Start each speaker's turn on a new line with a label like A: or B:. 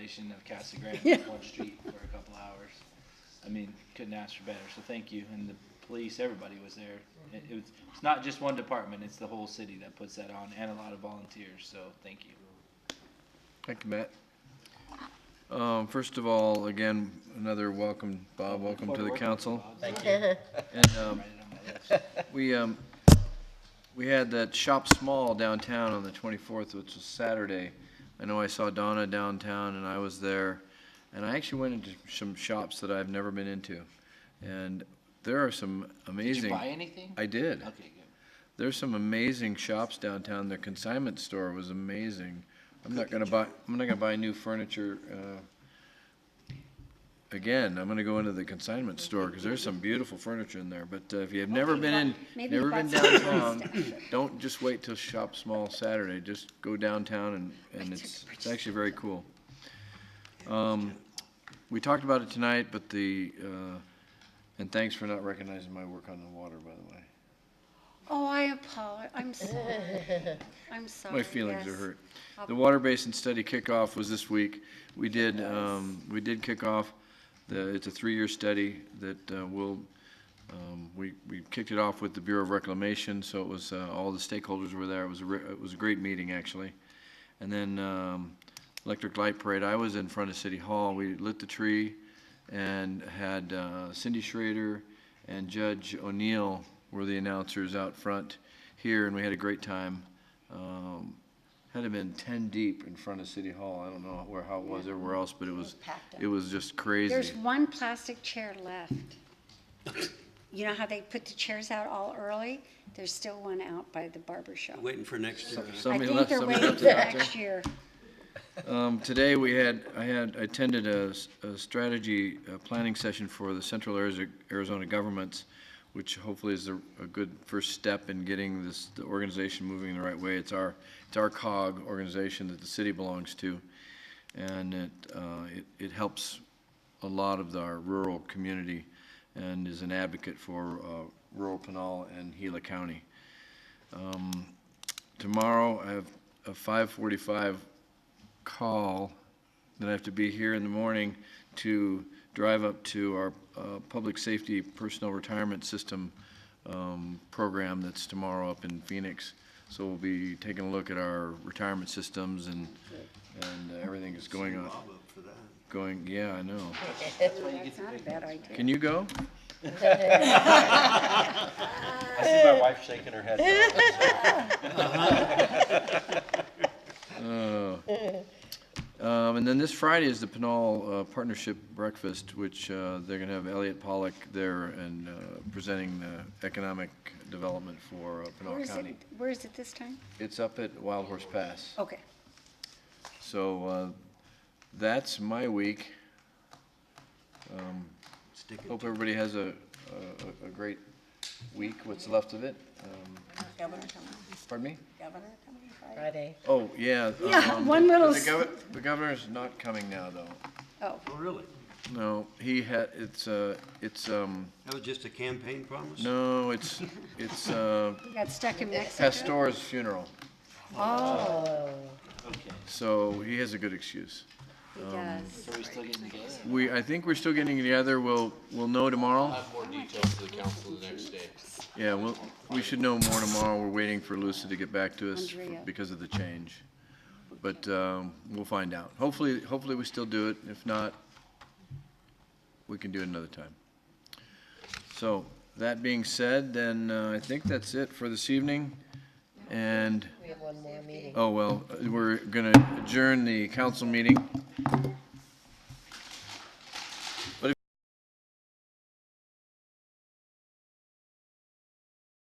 A: station of Casa Grande,
B: Yeah.
A: one street for a couple hours. I mean, couldn't ask for better, so thank you, and the police, everybody was there. It, it was, it's not just one department, it's the whole city that puts that on, and a lot of volunteers, so thank you.
C: Thank you, Matt. Um, First of all, again, another welcome, Bob, welcome to the council.
A: Thank you.
C: And um,
A: Write it on my list.
C: we, um, we had that Shop Small downtown on the 24th, which was Saturday. I know I saw Donna downtown, and I was there, and I actually went into some shops that I've never been into. And there are some
A: Did
C: amazing.
A: you buy anything?
C: I did.
A: Okay, good.
C: There's some amazing shops downtown. Their consignment store was amazing. I'm not gonna buy, I'm not gonna buy new furniture, uh, again, I'm gonna go into the consignment store, cause there's some beautiful furniture in there, but uh, if you've never been in,
B: Maybe you
C: never been
B: bought some
C: downtown, don't just wait till Shop Small Saturday, just go downtown and, and it's, it's actually very cool. Um, we talked about it tonight, but the, uh, and thanks for not recognizing my work on the water, by the way.
B: Oh, I apologize. I'm sorry. I'm sorry.
C: My feelings are
B: yes.
C: hurt.
B: I'll-
C: The water basin study kickoff was this week. We did, um, we did kick off, the, it's a three-year study that, uh, will, um, we, we kicked it off with the Bureau of Reclamation, so it was, uh, all the stakeholders were there. It was a, re- it was a great meeting, actually. And then, um, electric light parade, I was in front of City Hall. We lit the tree and had uh, Cindy Schrader and Judge O'Neill were the announcers out front here, and we had a great time. Um, Had to been ten deep in front of City Hall. I don't know where, how it was everywhere else, but it was, it was just
B: There's
C: crazy.
B: one plastic chair left. You know how they put the chairs out all early? There's still one out by the barber shop.
D: Waiting for next year.
B: I
C: Somebody
B: think
C: left,
B: they're
C: somebody
B: waiting
C: left
B: for
C: it out there.
B: next year.
C: Um, today we had, I had, I attended a, s- a strategy, uh planning session for the Central Arizo- Arizona Governments, which hopefully is a, a good first step in getting this, the organization moving in the right way. It's our, it's our cog organization that the city belongs to. And it, uh, it, it helps a lot of our rural community and is an advocate for, uh, rural Pinal and Gila County. Um, tomorrow I have a five forty-five call that I have to be here in the morning to drive up to our uh, Public Safety Personnel Retirement System um, program that's tomorrow up in Phoenix. So we'll be taking a look at our retirement systems and, and uh, everything that's going on,
D: Bob up for that.
C: going, yeah, I know.
B: That's not a bad idea.
C: Can you go?
E: I see my wife shaking her head. now.
C: Um, and then this Friday is the Pinal uh, Partnership Breakfast, which uh, they're going to have Elliot Pollock there and uh, presenting the economic development for uh,
B: Where
C: Pinal
B: is
C: County.
B: it, where is it this time?
C: It's up at Wild Horse Pass.
B: Okay.
C: So uh, that's my week. Um,
D: Stick it.
C: Hope everybody has a, a- a great week, what's left of it. Um,
F: Governor coming,
C: Pardon me?
F: governor coming Friday.
G: Friday.
C: Oh, yeah.
B: Yeah,
C: um,
B: one little
C: The
B: s-
C: gov- the governor's not coming now, though.
B: Oh,
D: Oh, really?
C: No, he had, it's, uh, it's, um,
D: That was just a campaign promise?
C: no, it's, it's uh,
B: we got stuck in Mexico.
C: Pastor's funeral,
B: Oh,
A: Okay,
C: so he has a good excuse.
B: he does.
A: so we're still getting together?
C: We, I think we're still getting together, we'll, we'll know tomorrow.
H: more details to the council the next day.
C: Yeah, well, we should know more tomorrow. We're waiting for Lucy to get back to us for-
B: Andrea.
C: because of the change. But um, we'll find out. Hopefully, hopefully we still do it. If not, we can do it another time. So, that being said, then uh, I think that's it for this evening. And,
G: We have one more meeting.
C: oh, well, uh, we're going to adjourn the council meeting